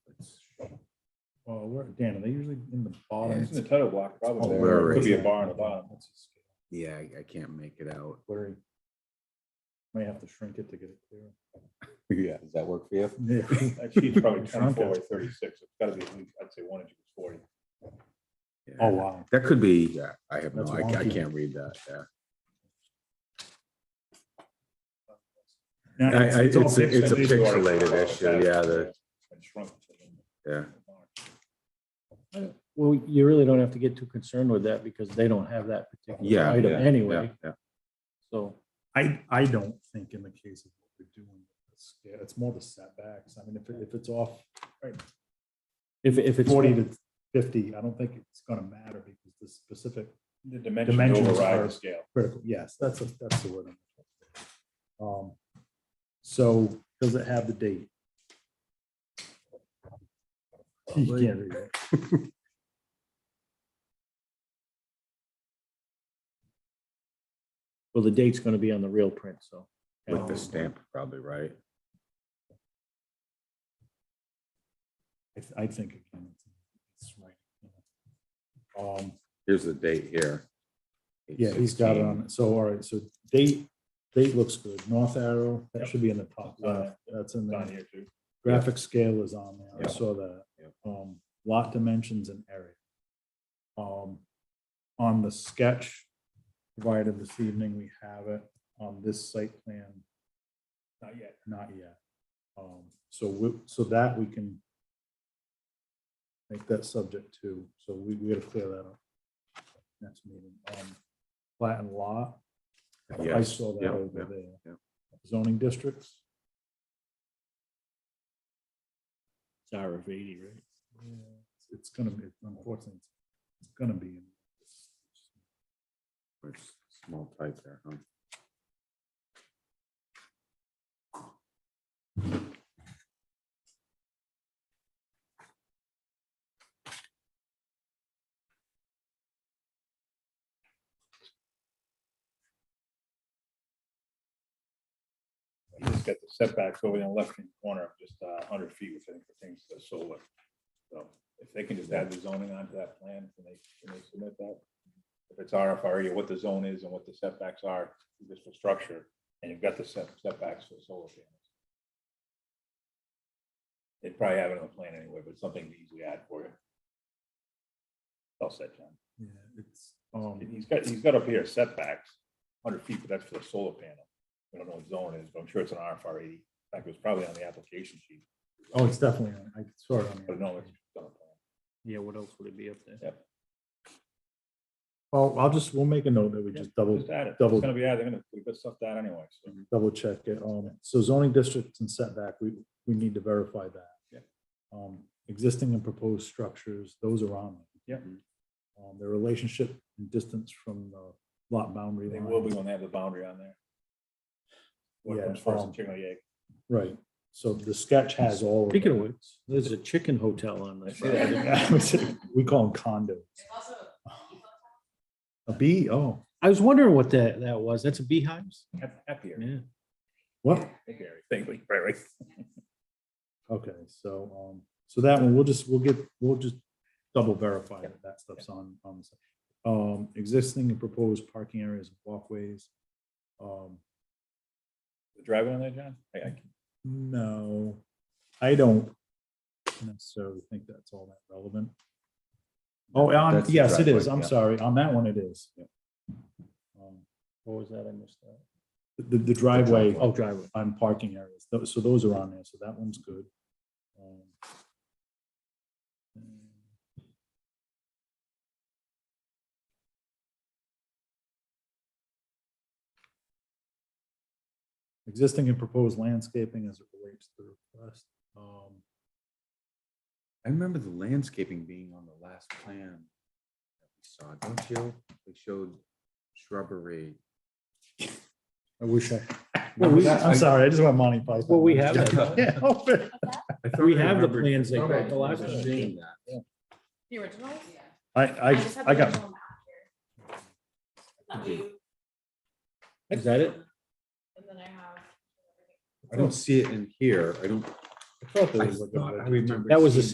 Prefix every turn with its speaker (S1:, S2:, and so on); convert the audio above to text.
S1: Oh, where, Dan, are they usually in the bottom?
S2: It's in the title block,
S1: Oh,
S2: probably.
S1: there
S2: There Could be a
S1: is.
S2: bar in the bottom. That's just-
S3: Yeah, I, I can't make it out.
S1: Blurry. May have to shrink it to get it
S3: Yeah, does that work for you?
S1: clear.
S2: That sheet's probably
S1: Shrunk
S2: twenty-four or
S1: it.
S2: thirty-six. It's gotta be, at least, I'd say one inch is forty.
S1: Oh, wow.
S3: That could be, yeah, I have no,
S1: That's
S3: I, I
S1: wonky.
S3: can't read that, yeah.
S1: Yeah,
S3: I- I-
S1: all
S3: it's a-
S1: pixelated.
S3: it's a pixelated issue, yeah, the-
S2: And shrunk it to the-
S3: Yeah.
S4: Well, you really don't have to get too concerned with that because they don't have that particular
S3: Yeah,
S4: item
S2: yeah,
S3: Yeah,
S4: anyway,
S3: yeah.
S4: so.
S1: I, I don't think in the case of what we're doing, it's, yeah, it's more the setbacks. I mean, if, it- if it's off
S4: If, if it's.
S1: forty to fifty, I don't think it's gonna matter because the specific
S2: The dimensions
S1: Dimensions
S2: override
S1: are-
S2: the scale.
S1: critical, yes, that's, a that's the word. I'm looking for. Um, So, does it have the date? You can't read it.
S4: Well, the date's gonna be on the real print, so.
S3: With
S1: um,
S3: the stamp, probably, right?
S1: I- I think again, it's right. Um,
S3: Here's the date here.
S1: Yeah, he's got it
S3: 8/16.
S1: on, so, all right, so date, date looks good, north arrow, that should be in the top left, that's in
S2: It's on
S1: there.
S2: here too.
S1: Graphic scale is on there,
S3: Yeah.
S1: I saw that.
S3: Yep.
S1: Um, lot dimensions and area. Um, on the sketch provided this evening, we have it on this site plan,
S2: Not yet.
S1: not yet. Um, so we, so that we can make that subject to, so we, we gotta clear that up. Next meeting, um, plat and lot. I
S3: Yes,
S1: saw that
S3: yeah,
S1: over
S3: yeah,
S1: there.
S3: yeah.
S1: Zoning districts.
S4: It's RF eighty, right?
S1: Yeah, it's- It's gonna be, unfortunately, it's- it's gonna be.
S3: It's Small type there, huh?
S2: You just got the setbacks over in the left hand corner, of just a hundred feet, which I think, for things that are solar. So if they can just add the zoning onto that plan, can they, can they submit that? If it's RFRE, E or what the zone is and what the setbacks are, just for structure, and you've got the set- setbacks for solar panels. They'd probably have it on the plan anyway, but something to easily add for you. I'll set, John.
S1: Yeah, it's, um,
S2: He's got, he's got up here setbacks, hundred feet, but that's for the solar panel. I don't know what zone it is, but I'm sure it's an RFR eighty. In fact, it was probably on the application sheet,
S1: oh, it's definitely, on- I saw it on
S2: but Oh, no,
S1: there.
S2: it's on the plan.
S4: Yeah, what else would it be up there?
S1: Well, I'll just, we'll make a note that we just double,
S2: Just add it. It's
S1: double- Mm-hmm.
S2: gonna be added, they're gonna put good stuff down anyway, so.
S1: double check it. Um, so zoning districts and setback, we, we need to verify that.
S2: Yeah.
S1: Um, existing and proposed structures, those are on.
S2: Yeah.
S4: Mm-hmm.
S1: Um, their relationship and distance from the lot boundary
S2: They
S1: line.
S2: will be when they have the boundary on there. What
S1: Yeah,
S2: comes first,
S1: um,
S2: the chicken or the egg?
S1: Right, so the sketch has all. of
S4: Speaking
S1: that.
S4: of which, there's a chicken hotel on this.
S1: We call them condos. A bee, oh,
S4: I was wondering what that, that was. That's a beehives?
S2: Hap- Happier.
S4: Yeah.
S1: what?
S2: Happier, thank you, right, right.
S1: Okay, so, um, so that one, we'll just, we'll get, we'll just double verify that that stuff's on, on the site. Um, existing and proposed parking areas, and walkways. Um,
S2: The driveway on there, John? I, I can-
S1: no, I don't necessarily think that's all that relevant. Oh, um,
S3: That's the
S1: yes, it is.
S3: driveway,
S1: I'm
S3: yeah.
S1: sorry. On that one, it is. Um,
S4: What was that? I missed that.
S1: The, the driveway.
S4: Oh, driveway.
S1: on parking areas. Tho- So those are on there, so that one's good. Um, Existing and proposed landscaping as it relates to the request. Um,
S3: I remember the landscaping being on the last plan. that we Saw, don't you? They showed shrubbery.
S1: I wish I,
S3: Well, we-
S1: I'm sorry, I just want Monty Python.
S4: Well, we have
S3: it.
S1: Yeah, oh,
S3: I thought
S4: We
S3: I
S4: have the
S3: remembered-
S4: plans they
S3: I thought I
S4: got the last
S3: remembered
S4: time.
S3: seeing that.
S5: The original?
S1: I, I,
S5: just have
S1: I
S5: the
S1: got,
S5: original map here. That
S3: Okay.
S5: we-
S4: Is that it?
S5: And then I have.
S3: I don't see it in here. I don't.
S1: I thought there
S3: I
S1: was like a
S3: thought I
S1: red-
S3: remembered
S4: That was the
S3: seeing